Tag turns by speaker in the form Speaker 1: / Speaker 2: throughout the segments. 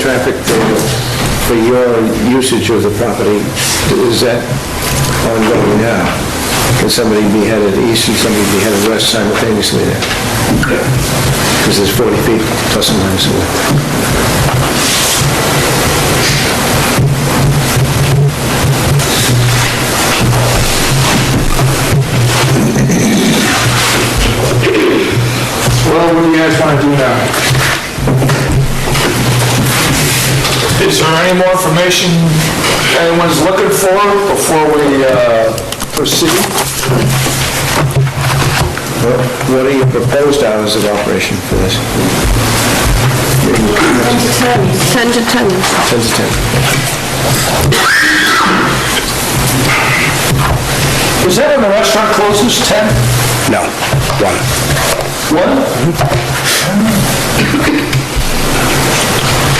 Speaker 1: traffic for, for your usage of the property, is that ongoing now? Can somebody be headed east and somebody be headed west simultaneously there? Because there's 40 feet plus or minus.
Speaker 2: Well, what do you guys want to do now? Is there any more information anyone's looking for before we uh, proceed?
Speaker 1: What what are your proposed hours of operation for this?
Speaker 3: 10 to 10.
Speaker 1: 10 to 10.
Speaker 2: Was that in the restaurant closest, 10?
Speaker 1: No, one.
Speaker 2: One?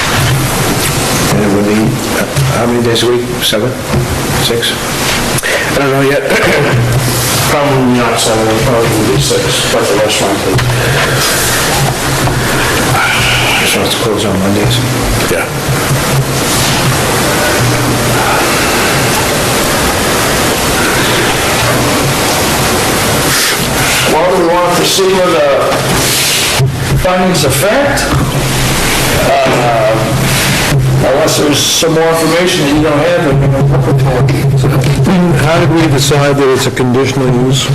Speaker 1: And it would be, uh, how many days a week? Seven? Six?
Speaker 2: I don't know yet. Probably not seven, it'll probably be six, but the restaurant is.
Speaker 1: Just wants to close on Mondays.
Speaker 2: Yeah. Well, do we want to proceed with the findings of fact? Uh, Unless there's some more information that you don't have, that we don't look for.
Speaker 4: How did we decide that it's a conditional use?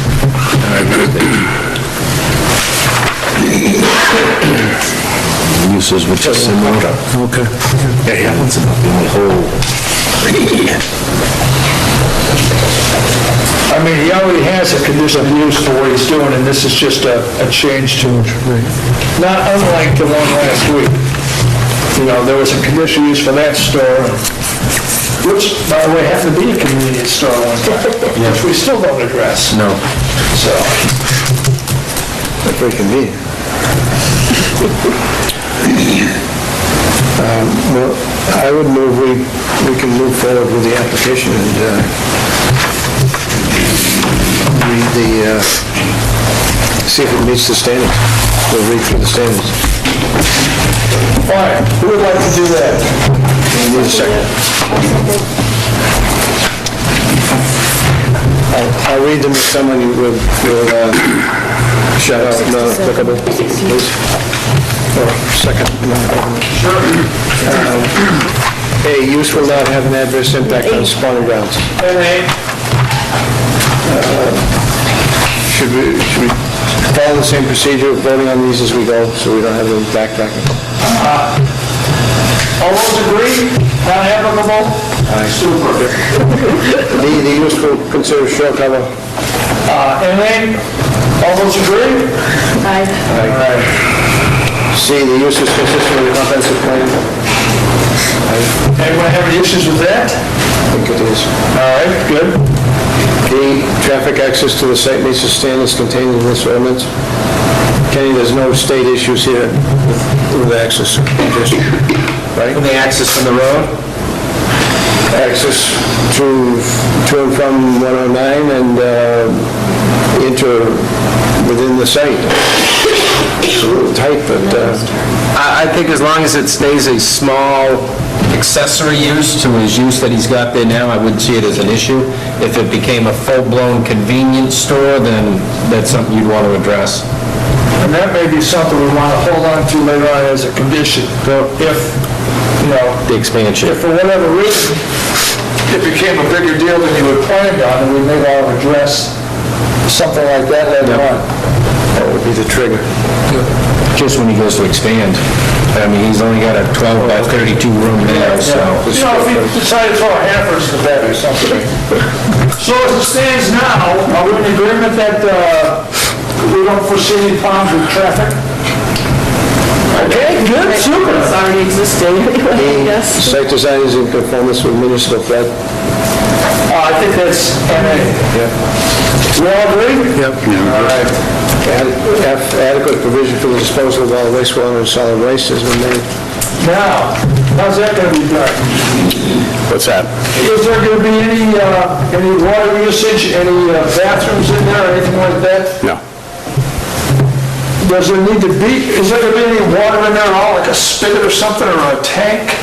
Speaker 5: uses which is similar.
Speaker 4: Okay.
Speaker 5: Yeah, yeah, that's about the only whole.
Speaker 2: I mean, he already has a condition of use for what he's doing, and this is just a, a change to it. Not unlike the one last week. You know, there was a condition use for that store, which, by the way, happened to be a convenience store one time, which we still don't address. No. So,
Speaker 1: That's very convenient. Um, Well, I would move, we, we can move forward with the application and uh, read the, uh, see if it meets the standards. We'll read through the standards.
Speaker 2: all right, who would like to do that?
Speaker 1: We need a second. I'll- I'll read them if someone you will, will uh, shut up, not applicable, please. Or second, not applicable. Um, A, use will not have an adverse impact on spawning grounds. Should we, should we follow the same procedure of voting on these as we go, so we don't have them backtracking?
Speaker 2: All those agree, not applicable? Super.
Speaker 1: The, the use will consider shore cover
Speaker 2: Uh, and then, all those agree?
Speaker 3: Aye.
Speaker 2: All right.
Speaker 1: C, the use is consistent with the comprehensive plan. I
Speaker 2: Anyone have any issues with that?
Speaker 1: think it is.
Speaker 2: All right, good.
Speaker 1: D, traffic access to the site meets the standards contained in this ordinance. Kenny, there's no state issues here with with access, just, right?
Speaker 2: The access from the road?
Speaker 1: Access to, to and from 109 and uh, into, within the site. It's a little tight, but, uh,
Speaker 5: I, I think as long as it stays a small accessory use to his use that he's got there now, I wouldn't see it as an issue. If it became a full-blown convenience store, then that's something you'd want to address.
Speaker 2: And that may be something we want to hold on to later on as a condition, though if, you know,
Speaker 5: The expansion.
Speaker 2: if for whatever reason, it became a bigger deal than you had planned on, then we may want to address something like that later on.
Speaker 1: that would be the trigger.
Speaker 5: Just when he goes to expand. I mean, he's only got a 12 by 32 room now, so...
Speaker 2: You know, if you decide to throw a hamper in the bed or something. So as it stands now, are we in agreement that uh, we don't foresee any problems with traffic? Okay, good, super.
Speaker 3: It's already existing, yes.
Speaker 1: Site design is in conformance with municipal flood.
Speaker 2: Uh, I think that's NA. We all agree?
Speaker 1: Yep. All right. Ad- F, adequate provision for the disposal of all wastewater and solid waste has been made.
Speaker 2: Now, how's that gonna be done?
Speaker 1: What's that?
Speaker 2: Is there gonna be any, uh, any water usage, any uh, bathrooms in there, or anything like that?
Speaker 1: No.
Speaker 2: Does there need to be, is there gonna be any water in there at all, like a spigot or something, or a tank?